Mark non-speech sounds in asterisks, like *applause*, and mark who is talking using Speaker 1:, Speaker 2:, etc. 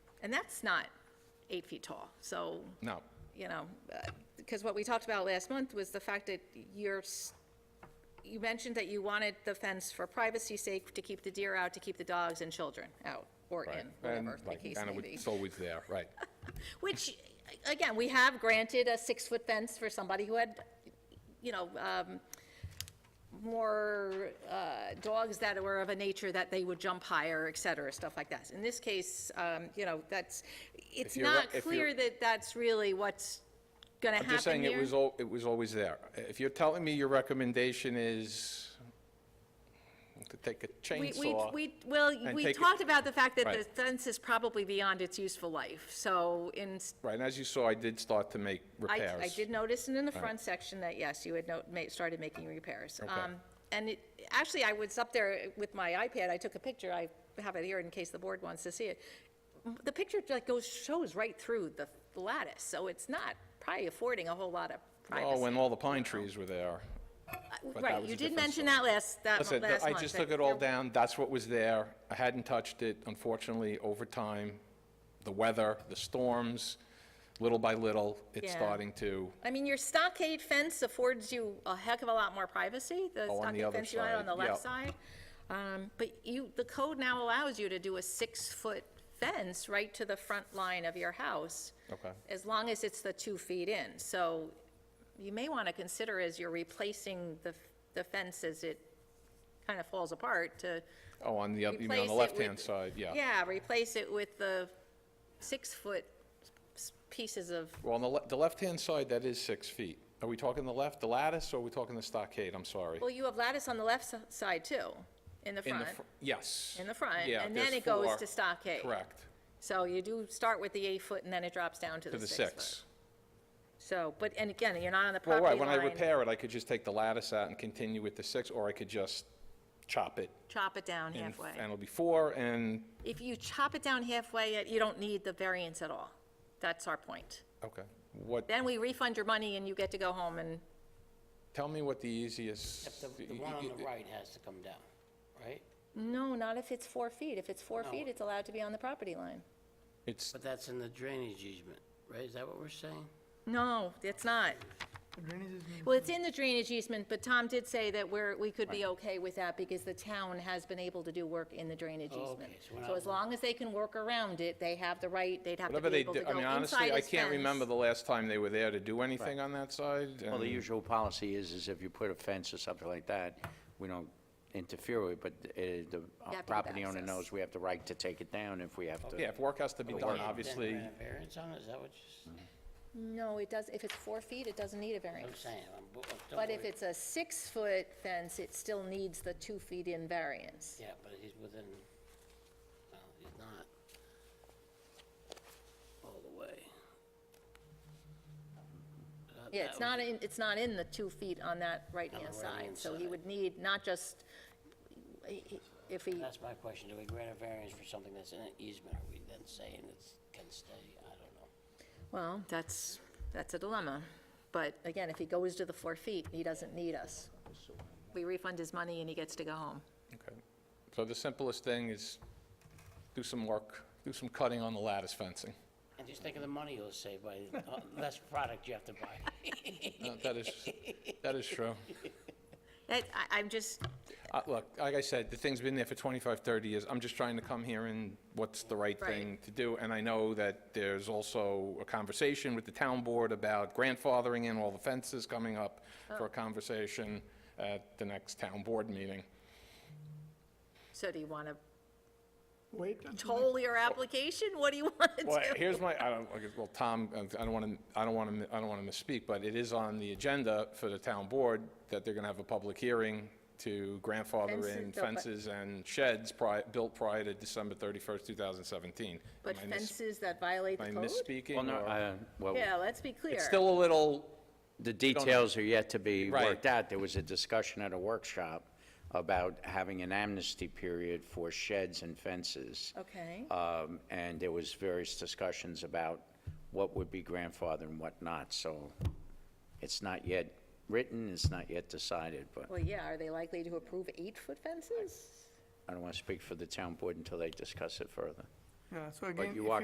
Speaker 1: And that's not eight feet tall, so,
Speaker 2: No.
Speaker 1: you know, because what we talked about last month was the fact that you're, s- you mentioned that you wanted the fence for privacy's sake, to keep the deer out, to keep the dogs and children out, or
Speaker 2: right.
Speaker 1: in, whatever
Speaker 2: And,
Speaker 1: the
Speaker 2: like,
Speaker 1: case
Speaker 2: kinda
Speaker 1: may
Speaker 2: with-
Speaker 1: be.
Speaker 2: It's always there, *laughs* right.
Speaker 1: Which, again, we have granted a six-foot fence for somebody who had, you know, um, more uh, dogs that were of a nature that they would jump higher, et cetera, stuff like that. In this case, um, you know, that's, it's
Speaker 2: If you're-
Speaker 1: not
Speaker 2: if
Speaker 1: clear
Speaker 2: you're-
Speaker 1: that that's really what's going to
Speaker 2: I'm just
Speaker 1: happen
Speaker 2: saying it
Speaker 1: here.
Speaker 2: was, al- it was always there. If you're telling me your recommendation is to take a
Speaker 1: We, we,
Speaker 2: chainsaw.
Speaker 1: we, well,
Speaker 2: and
Speaker 1: we
Speaker 2: take it-
Speaker 1: talked about the fact that the
Speaker 2: Right.
Speaker 1: fence is probably beyond its useful life, so in,
Speaker 2: Right, and as you saw, I did start to make
Speaker 1: I,
Speaker 2: repairs.
Speaker 1: I did notice in the front section that, yes, you had no- ma- started making repairs. Um, And it, actually, I was up there with my iPad, I took a picture, I have it here in case the board wants to see it. M- The picture like goes, shows right through the lattice, so it's not probably affording a whole lot of
Speaker 2: Oh,
Speaker 1: privacy.
Speaker 2: when all the pine trees were there. that
Speaker 1: Right,
Speaker 2: was
Speaker 1: you did
Speaker 2: a different
Speaker 1: mention
Speaker 2: story.
Speaker 1: that last, that
Speaker 2: Listen,
Speaker 1: last
Speaker 2: I
Speaker 1: month.
Speaker 2: just
Speaker 1: that
Speaker 2: took it all
Speaker 1: there-
Speaker 2: down, that's what was there. I hadn't touched it, unfortunately, over time, the weather, the storms, little by little, it's
Speaker 1: Yeah.
Speaker 2: starting to,
Speaker 1: I mean, your stockade fence affords you a heck of a lot more privacy, the
Speaker 2: Oh, on the
Speaker 1: stockade
Speaker 2: other
Speaker 1: fence you had on
Speaker 2: side,
Speaker 1: the left
Speaker 2: yeah.
Speaker 1: side. Um, But you, the code now allows you to do a six-foot fence right to the front line of your house.
Speaker 2: Okay.
Speaker 1: As long as it's the two feet in. So you may want to consider as you're replacing the, the fence as it kind of falls apart to
Speaker 2: oh, on the, oth- you mean on
Speaker 1: replace
Speaker 2: the
Speaker 1: it
Speaker 2: left-hand
Speaker 1: with-
Speaker 2: side,
Speaker 1: Yeah, replace it with the six-foot s- pieces of,
Speaker 2: Well, on the, le- the left-hand side, that is six feet. Are we talking the left, the lattice, or are we talking the stockade? I'm sorry.
Speaker 1: well, you have lattice on the left s- side too, in the
Speaker 2: In the
Speaker 1: front.
Speaker 2: fr- Yes.
Speaker 1: In the front,
Speaker 2: Yeah,
Speaker 1: and then
Speaker 2: there's
Speaker 1: it goes
Speaker 2: four.
Speaker 1: to stockade.
Speaker 2: Correct,
Speaker 1: So you do start with the eight foot and then it drops down to
Speaker 2: to
Speaker 1: the
Speaker 2: the
Speaker 1: six
Speaker 2: six.
Speaker 1: foot. So, but, and again, you're not on the
Speaker 2: Well,
Speaker 1: property
Speaker 2: right,
Speaker 1: line.
Speaker 2: when I repair it, I could just take the lattice out and continue with the six, or I could just chop it.
Speaker 1: Chop it down
Speaker 2: in-
Speaker 1: halfway.
Speaker 2: And it'll be four, and,
Speaker 1: If you chop it down halfway, you don't need the variance at all. That's our point.
Speaker 2: okay. What,
Speaker 1: Then we refund your money and you get to go home and,
Speaker 2: tell me what the easiest.
Speaker 3: Except the, the one on the right has to come down, right?
Speaker 1: no, not if it's four feet. If it's four
Speaker 3: No.
Speaker 1: feet, it's allowed to be on the property line.
Speaker 2: It's,
Speaker 3: But that's in the drainage easement, right? Is that what we're saying?
Speaker 1: No, it's not. Well, it's in the drainage easement, but Tom did say that we're, we could be okay with that because the town has been able to do work in the drainage
Speaker 3: Oh,
Speaker 1: easement.
Speaker 3: okay, so we're
Speaker 1: So
Speaker 3: not-
Speaker 1: as long as they can work around it, they have the right, they'd have to
Speaker 2: whatever
Speaker 1: be
Speaker 2: they
Speaker 1: able to
Speaker 2: do,
Speaker 1: go
Speaker 2: I mean,
Speaker 1: inside
Speaker 2: honestly, I
Speaker 1: his
Speaker 2: can't remember
Speaker 1: fence.
Speaker 2: the last time they were there to do anything on that side.
Speaker 4: Well, the
Speaker 2: and-
Speaker 4: usual policy is, is if you put a fence or something like that, we don't interfere with, it, but uh, the
Speaker 1: have to
Speaker 4: uh,
Speaker 1: give
Speaker 4: property owner
Speaker 1: access.
Speaker 4: knows we have the right to take it down if we have to.
Speaker 2: Yeah, if work has to be done,
Speaker 4: work.
Speaker 2: obviously,
Speaker 3: Then grant a variance on it, is that what you're saying?
Speaker 1: No, it does, if it's four feet, it doesn't need a
Speaker 3: I'm
Speaker 1: variance.
Speaker 3: saying, I'm, bo- don't
Speaker 1: But if
Speaker 3: worry.
Speaker 1: it's a six-foot fence, it still needs the two feet in variance.
Speaker 3: Yeah, but he's within, no, he's not all the way. That-
Speaker 1: Yeah,
Speaker 3: that
Speaker 1: it's
Speaker 3: was-
Speaker 1: not in, it's not in the two feet on that right-hand
Speaker 3: On the
Speaker 1: side,
Speaker 3: right-hand
Speaker 1: so he
Speaker 3: side.
Speaker 1: would need not just, he- he- if he,
Speaker 3: That's my question. Do we grant a variance for something that's in an easement? Are we then saying it's, can stay? I don't know.
Speaker 1: well, that's, that's a dilemma. But again, if he goes to the four feet, he doesn't need us. We refund his money and he gets to go home.
Speaker 2: Okay. So the simplest thing is do some work, do some cutting on the lattice fencing.
Speaker 3: And just think of the money you'll save by, uh, less product you have to buy. *laughs*
Speaker 2: Uh, That is, that is true.
Speaker 1: That, I, I'm just,
Speaker 2: Uh, Look, like I said, the thing's been there for 25, 30 years. I'm just trying to come here and what's the right thing to do. And I know that there's also a conversation with the town board about grandfathering in all the fences coming up for a conversation at the next town board meeting.
Speaker 1: so do you want to
Speaker 5: Wait,
Speaker 1: toll your application? What do you want to do?
Speaker 2: *laughs* Well, here's my, I don't, okay, well, Tom, I don't want to, I don't want to, I don't want to misspeak, but it is on the agenda for the town board that they're going to have a public hearing to grandfather
Speaker 1: Fences
Speaker 2: in
Speaker 1: built by-
Speaker 2: fences and sheds pri- built prior to December 31st, 2017.
Speaker 1: But
Speaker 2: Am I mis-
Speaker 1: fences that violate the
Speaker 2: Am I
Speaker 1: code?
Speaker 2: misspeaking?
Speaker 4: Well, no,
Speaker 2: or-
Speaker 4: uh, well,
Speaker 1: Yeah, let's be clear.
Speaker 2: It's still a little,
Speaker 4: the details are yet to be
Speaker 2: Right.
Speaker 4: worked out. There was a discussion at a workshop about having an amnesty period for sheds and fences.
Speaker 1: Okay.
Speaker 4: Um, And there was various discussions about what would be grandfathered and what not, so it's not yet written, it's not yet decided, but
Speaker 1: Well, yeah, are they likely to approve eight-foot fences?
Speaker 4: I don't want to speak for the town board until they discuss it further.
Speaker 5: yeah, so again,
Speaker 4: you
Speaker 5: if
Speaker 4: are